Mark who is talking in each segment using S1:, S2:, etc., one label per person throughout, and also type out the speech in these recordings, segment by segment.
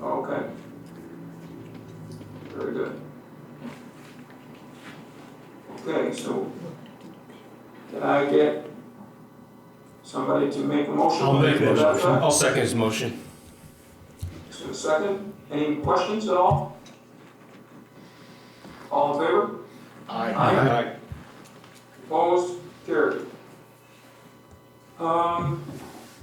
S1: Oh, very good. Okay, so can I get somebody to make a motion?
S2: I'll make a
S1: Is that
S2: motion. I'll second his motion.
S1: right? Is there a second? Any questions at all? All in favor? Aye. Opposed? Carried. Um,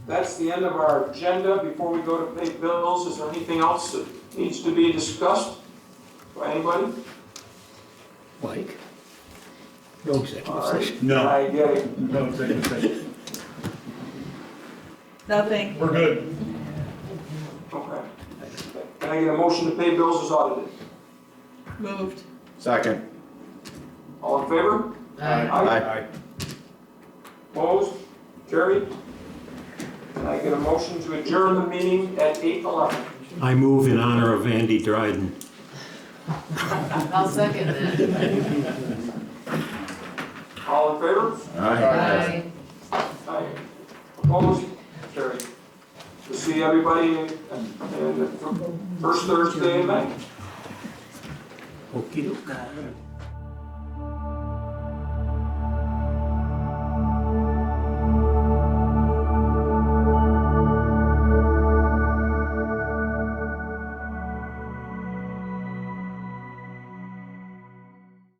S1: that's the end of our agenda. Before we go to pay bills, is there anything else that needs to be discussed by anybody?
S3: Mike? No executive
S1: All right.
S3: session.
S4: No,
S1: I get it.
S4: no executive session.
S5: Nothing.
S4: We're good.
S1: Okay. Can I get a motion to pay bills as audited?
S5: Moved.
S6: Second.
S1: All in favor?
S6: Aye.
S1: Opposed? Carried. Can I get a motion to adjourn the meeting at eight eleven?
S7: I move in honor of Andy Dryden.
S8: I'll second that.
S1: All in favor?
S6: Aye.
S1: Aye. Opposed? Carried. We'll see everybody in in the fir- first Thursday in May.
S3: Okey-dokey.